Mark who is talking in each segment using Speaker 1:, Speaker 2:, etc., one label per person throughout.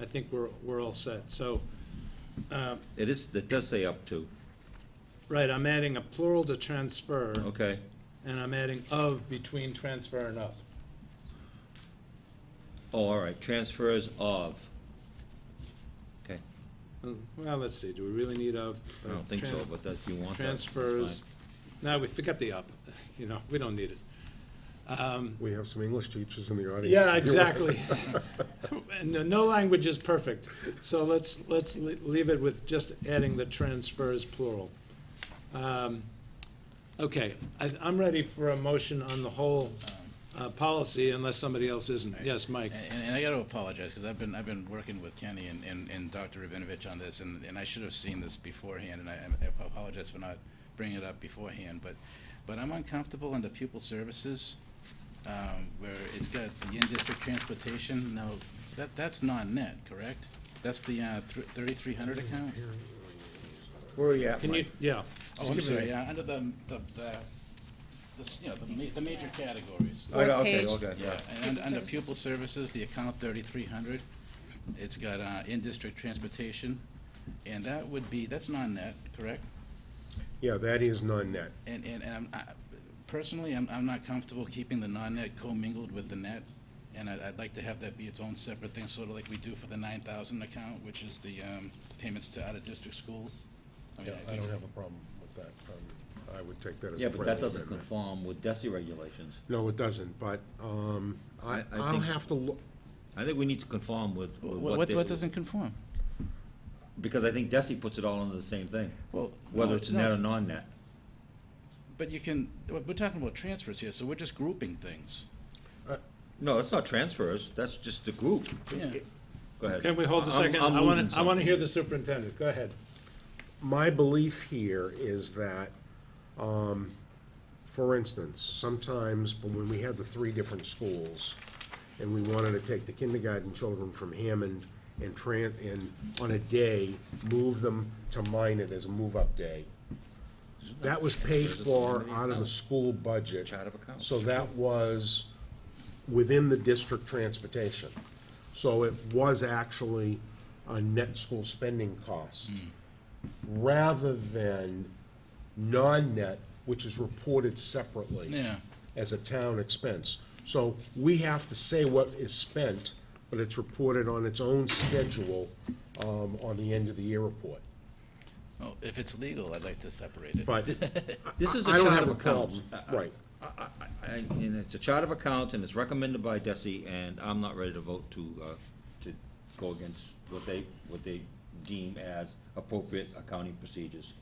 Speaker 1: I think we're, we're all set. So, uh,
Speaker 2: It is, it does say up to,
Speaker 1: right, I'm adding a plural to transfer,
Speaker 2: okay.
Speaker 1: and I'm adding of between transfer and up.
Speaker 2: Oh, all right, transfers of. Okay,
Speaker 1: Well, let's see, do we really need a?
Speaker 2: I don't think so, but that, you want that. that's
Speaker 1: Transfers,
Speaker 2: fine.
Speaker 1: no, we forget the up, you know, we don't need it.
Speaker 3: We have some English teachers in the audience.
Speaker 1: Yeah, exactly. And no- no language is perfect, so let's, let's le- leave it with just adding the transfers plural. Um, Okay, I, I'm ready for a motion on the whole, uh, policy unless somebody else isn't. Yes, Mike?
Speaker 4: And, and I got to apologize because I've been I've been working with Kenny and, and, and Dr. Rabinovich on this, and, and I should have seen this beforehand, and I, I apologize for not bringing it up beforehand. But but I'm uncomfortable under pupil services, um, where it's got the in-district transportation. Now that that's not net, correct? That's the uh, thr 3,300 account.
Speaker 2: Where are you at,
Speaker 1: Can you,
Speaker 2: Mike?
Speaker 1: yeah,
Speaker 4: Oh, I'm sorry. Yeah, under the the, the, the s- you know the, ma- the major categories.
Speaker 2: Wait, Oh, Okay,
Speaker 5: Fourth
Speaker 2: okay,
Speaker 4: Yeah,
Speaker 2: yeah.
Speaker 4: and under- under pupil services, the account thirty-three hundred, it's got uh, in-district transportation, and that would be, that's non-net, correct?
Speaker 3: Yeah, that is non-net.
Speaker 4: And, and, and I'm, I- personally, I'm, I'm not comfortable keeping the non-net commingled with the net, and I'd, I'd like to have that be its own separate thing, sort of like we do for the nine thousand account, which is the um, payments to out-of-district schools. I mean,
Speaker 3: I don't have a problem with that. Um, I would take that as
Speaker 2: Yeah,
Speaker 3: a
Speaker 2: but
Speaker 3: friendly
Speaker 2: that doesn't
Speaker 3: amendment.
Speaker 2: conform with DESI regulations.
Speaker 3: No, it doesn't, but um, I,
Speaker 2: I- I
Speaker 3: I'll
Speaker 2: think-
Speaker 3: have to look,
Speaker 2: I think we need to conform with with
Speaker 4: Wh-
Speaker 2: what.
Speaker 4: What,
Speaker 2: they-
Speaker 4: what doesn't conform?
Speaker 2: Because I think DESI puts it all under the same thing,
Speaker 4: Well.
Speaker 2: whether
Speaker 4: no,
Speaker 2: it's
Speaker 4: no,
Speaker 2: net or non-net.
Speaker 4: But you can, we're we're talking about transfers here, so we're just grouping things.
Speaker 2: No, that's not transfers, that's just the group.
Speaker 4: Yeah.
Speaker 2: Go ahead.
Speaker 1: can we hold a
Speaker 2: I'm-
Speaker 1: second?
Speaker 2: I'm
Speaker 1: I want
Speaker 2: losing
Speaker 1: to, I want
Speaker 2: something.
Speaker 1: to hear the superintendent, go ahead.
Speaker 3: my belief here is that, um, for instance, sometimes when we had the three different schools and we wanted to take the kindergarten children from Hammond and Tran, and on a day, move them to Minot as a move-up day. That was paid for out of the school budget.
Speaker 2: Chart of accounts.
Speaker 3: So that was within the district transportation. So it was actually a net school spending cost
Speaker 2: Mm-hmm.
Speaker 3: rather than non-net, which is reported separately
Speaker 4: Yeah.
Speaker 3: as a town expense. So we have to say what is spent, but it's reported on its own schedule um, on the end of the year report.
Speaker 4: Well, if it's legal, I'd like to separate it.
Speaker 3: But
Speaker 2: This is
Speaker 3: I
Speaker 2: a
Speaker 3: don't
Speaker 2: chart of
Speaker 3: have a
Speaker 2: accounts.
Speaker 3: problem,
Speaker 2: I- I-
Speaker 3: right.
Speaker 2: I- I- And it's a chart of accounts, and it's recommended by DESI, and I'm not ready to vote to, uh, to go against what they, what they deem as appropriate accounting procedures.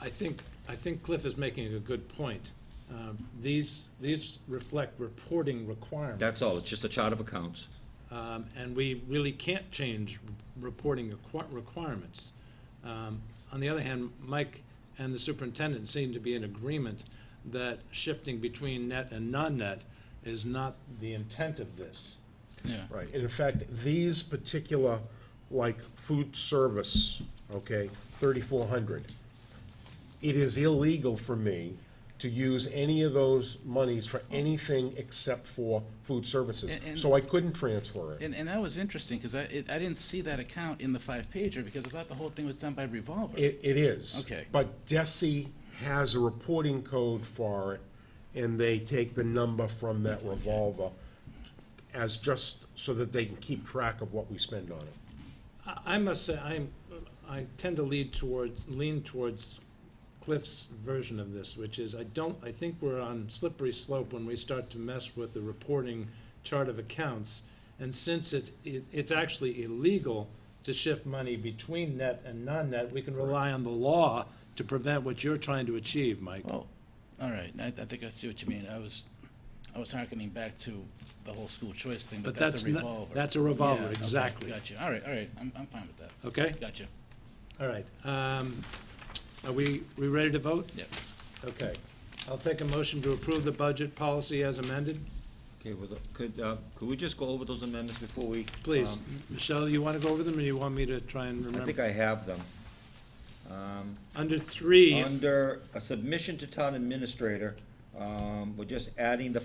Speaker 1: I think, I think Cliff is making a good point. Um, These, these reflect reporting requirements.
Speaker 2: That's all, it's just a chart of accounts.
Speaker 1: Um, and we really can't change reporting requi- requirements. Um, On the other hand, Mike and the superintendent seem to be in agreement that shifting between net and non-net is not the intent of this.
Speaker 4: Yeah.
Speaker 3: Right, and in fact, these particular, like food service, okay, thirty-four hundred. It is illegal for me to use any of those monies for anything except for food services,
Speaker 4: And- and-
Speaker 3: so I couldn't transfer it.
Speaker 4: And, and that was interesting, because I, it- I didn't see that account in the five-pager, because I thought the whole thing was done by revolver.
Speaker 3: It, it is.
Speaker 4: Okay.
Speaker 3: But DESI has a reporting code for it, and they take the number from that revolver as just so that they can keep track of what we spend on it.
Speaker 1: I- I must say, I'm, I tend to lead towards, lean towards Cliff's version of this, which is, I don't, I think we're on slippery slope when we start to mess with the reporting chart of accounts. And since it's, it- it's actually illegal to shift money between net and non-net, we can rely on the law to prevent what you're trying to achieve, Mike.
Speaker 4: Well, all right, I, I think I see what you mean. I was, I was harkening back to the whole school choice thing, but
Speaker 1: But
Speaker 4: that's a
Speaker 1: that's not-
Speaker 4: revolver.
Speaker 1: that's a revolver,
Speaker 4: Yeah, okay,
Speaker 1: exactly.
Speaker 4: Gotcha, all right, all right, I'm, I'm fine with that.
Speaker 1: Okay?
Speaker 4: Gotcha,
Speaker 1: All right. Um, Are we, we ready to vote?
Speaker 4: yep.
Speaker 1: Okay. I'll take a motion to approve the budget policy as amended.
Speaker 2: Okay, well, the- could, uh, could we just go over those amendments before we?
Speaker 1: Please,
Speaker 2: um,
Speaker 1: Michelle, you want to go over them, or you want me to try and
Speaker 2: Uh, I think
Speaker 1: remember?
Speaker 2: I have them. Um,
Speaker 1: Under three,
Speaker 2: Oh, uh, Under a submission to town administrator, um, we're just adding the